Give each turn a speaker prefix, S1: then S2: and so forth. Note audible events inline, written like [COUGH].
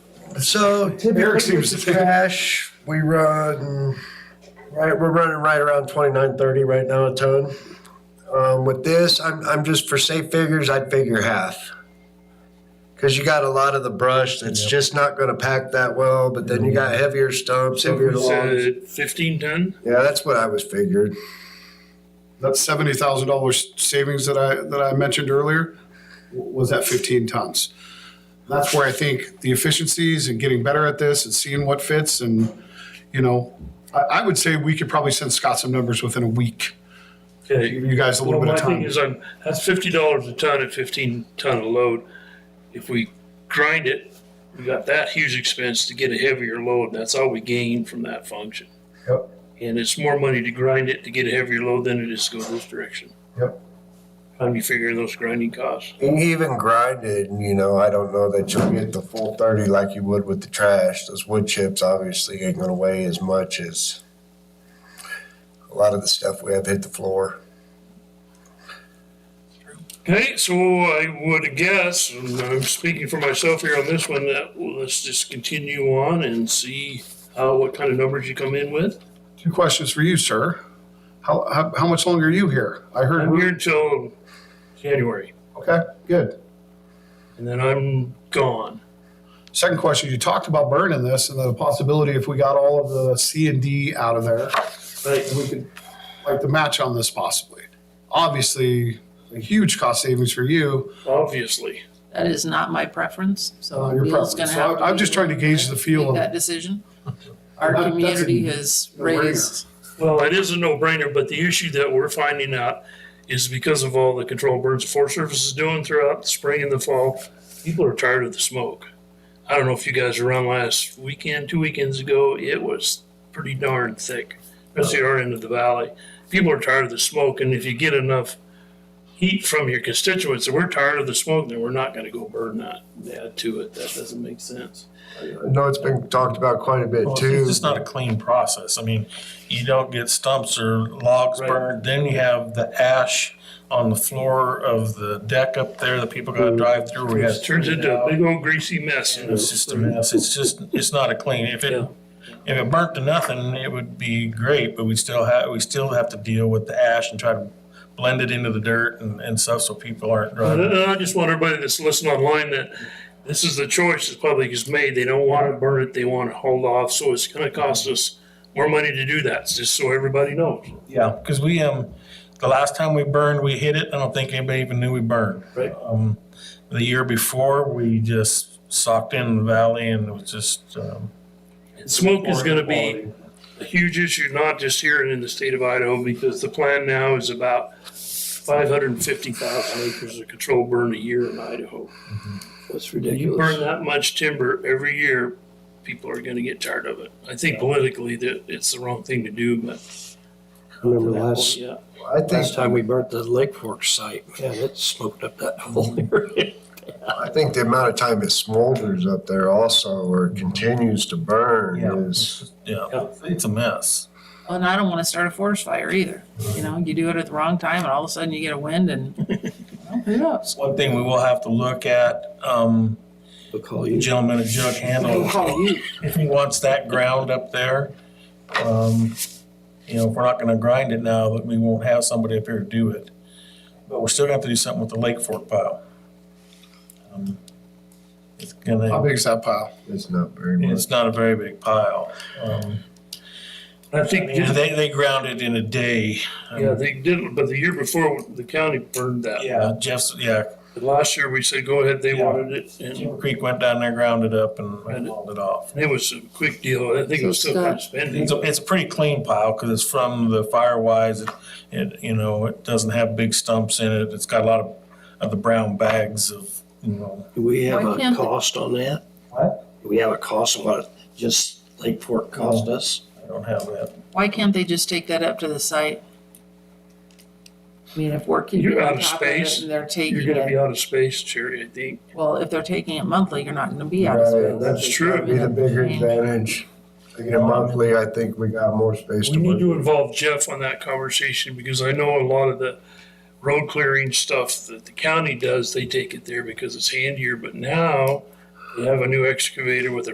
S1: So
S2: Eric
S1: typically
S2: seems
S1: with
S2: to
S1: the
S2: think-
S1: trash, we run, right, we're running right around twenty-nine, thirty right now a ton. Um, with this, I'm, I'm just for safe figures, I'd figure half. Cause you got a lot of the brush that's just not gonna pack that well, but then
S2: Mm-hmm.
S1: you got heavier stumps,
S3: So
S1: heavier
S3: we
S1: logs.
S3: said fifteen ton?
S1: Yeah, that's what I was figured.
S2: That seventy thousand dollars savings that I, that I mentioned earlier w- was that fifteen tons. That's where I think the efficiencies and getting better at this and seeing what fits and, you know, I, I would say we could probably send Scott some numbers within a week.
S3: Okay.
S2: Give you guys a little
S3: Well,
S2: bit
S3: my
S2: of
S3: thing
S2: time.
S3: is, I'm, that's fifty dollars a ton at fifteen ton of load. If we grind it, we got that huge expense to get a heavier load, that's all we gain from that function.
S1: Yep.
S3: And it's more money to grind it to get a heavier load than it is to go this direction.
S1: Yep.
S3: How do you figure those grinding costs?
S1: And even grinded, you know, I don't know that you'll get the full thirty like you would with the trash. Those wood chips obviously ain't gonna weigh as much as a lot of the stuff we have hit the floor.
S3: Okay, so I would guess, and I'm speaking for myself here on this one, that well, let's just continue on and see how, what kind of numbers you come in with.
S2: Two questions for you, sir. How, how, how much longer are you here? I heard.
S3: I'm here until January,
S2: Okay, good.
S3: and then I'm gone.
S2: Second question, you talked about burning this and the possibility if we got all of the C and D out of there,
S3: Right,
S2: we could like the match on this possibly. Obviously, a huge cost savings for you.
S3: obviously.
S4: That is not my preference, so
S2: on your
S4: Bill's
S2: property.
S4: gonna
S2: So
S4: have to.
S2: I- I'm just
S4: be-
S2: trying to gauge the feel
S4: Make
S2: of
S4: that
S2: it. [LAUGHS]
S4: decision. Our
S2: That- that's a
S4: community has
S2: no-brainer.
S4: raised,
S3: Well, it is a no-brainer, but the issue that we're finding out is because of all the control burns the Forest Service is doing throughout the spring and the fall, people are tired of the smoke. I don't know if you guys were around last weekend, two weekends ago, it was pretty darn thick, especially our end of the valley. People are tired of the smoke, and if you get enough heat from your constituents, and we're tired of the smoke, then we're not gonna go burn that, add to it. That doesn't make sense.
S1: I know it's been talked about quite a bit
S5: Well,
S1: too.
S5: It's just not a clean process. I mean, you don't get stumps or logs
S3: Right.
S5: burned, then you have the ash on the floor of the deck up there that people gotta drive through. We have
S3: It
S5: to
S3: Mm. turns
S5: clean it
S3: into a
S5: out.
S3: big old greasy mess. and
S5: It's just a mess. It's just, it's not a clean. If it,
S3: Yeah.
S5: if it burnt to nothing, it would be great, but we still have, we still have to deal with the ash and try to blend it into the dirt and, and stuff so people aren't
S3: And
S5: driving.
S3: I I just want everybody that's listening online that this is the choice the public has made. They don't want to burn it, they want to hold off, so it's gonna cost us more money to do that, just so everybody knows.
S5: Yeah, because we, um, the last time we burned, we hit it. I don't think anybody even knew we burned.
S3: Right.
S5: Um, the year before, we just socked in the valley and it was just, um.
S3: And Smoke is gonna be a huge issue, not just here and in the state of Idaho, because the plan now is about five hundred and fifty thousand acres of control burn a year in Idaho.
S6: That's
S3: You burn
S6: ridiculous.
S3: that much timber every year, people are gonna get tired of it. I think politically that it's the wrong thing to do, but.
S6: Remember last,
S3: Yeah.
S1: I think,
S6: last time we burnt the Lake Fork site, man, it smoked up that whole [LAUGHS] area.
S1: I think the amount of time it smolders up there also or continues to
S5: Yeah.
S1: burn is,
S5: Yeah, it's a mess.
S4: and I don't wanna start a forest fire either, you know, you do it at the wrong time and all of a sudden you get a
S2: [LAUGHS]
S4: wind and. Well, Who knows?
S5: One thing we will have to look at, um,
S6: We'll call
S5: the
S6: you.
S5: gentleman at Jug Handle, if he wants that ground up there. Um, you know, if we're not gonna grind it now, that we won't have somebody up here to do it. But we're still gonna have to do something with the Lake Fork pile. Um, It's
S2: How
S5: gonna,
S2: big is that pile?
S1: it's not very much.
S5: it's not a very big pile. Um,
S3: I think.
S5: They, they ground it in a day. Um,
S3: Yeah, they did, but the year before, the county burned that.
S5: Yeah, Jeff's, yeah,
S3: But Last year, we said, go ahead, they
S5: Yeah.
S3: wanted it, and
S5: Jim Creek went down there, ground it up and
S3: And-
S5: hauled it off.
S3: it was a quick deal, I think it was still kind of spending.
S5: It's a, it's a pretty clean pile because it's from the Firewise. It- It, you know, it doesn't have big stumps in it. It's got a lot of, of the brown bags of, you know.
S6: Do we have
S4: Why
S6: a
S4: can't the-
S6: cost on that?
S5: What?
S6: Do we have a cost on what it just Lake Fork cost us?
S5: I don't have that.
S4: Why can't they just take that up to the site? I mean, if we're keeping
S3: You're out
S4: on
S3: of
S4: top of it
S3: space.
S4: and they're
S3: You're
S4: taking
S3: gonna be
S4: it,
S3: out of space, Jerry, I think.
S4: well, if they're taking it monthly, you're not gonna be out of
S1: Right,
S4: space.
S1: that's
S3: true.
S1: Be the bigger advantage. Thinking of monthly, I think we got more space
S3: We
S1: to
S3: need
S1: work.
S3: to involve Jeff on that conversation, because I know a lot of the road clearing stuff that the county does, they take it there because it's handier, but now they have a new excavator with a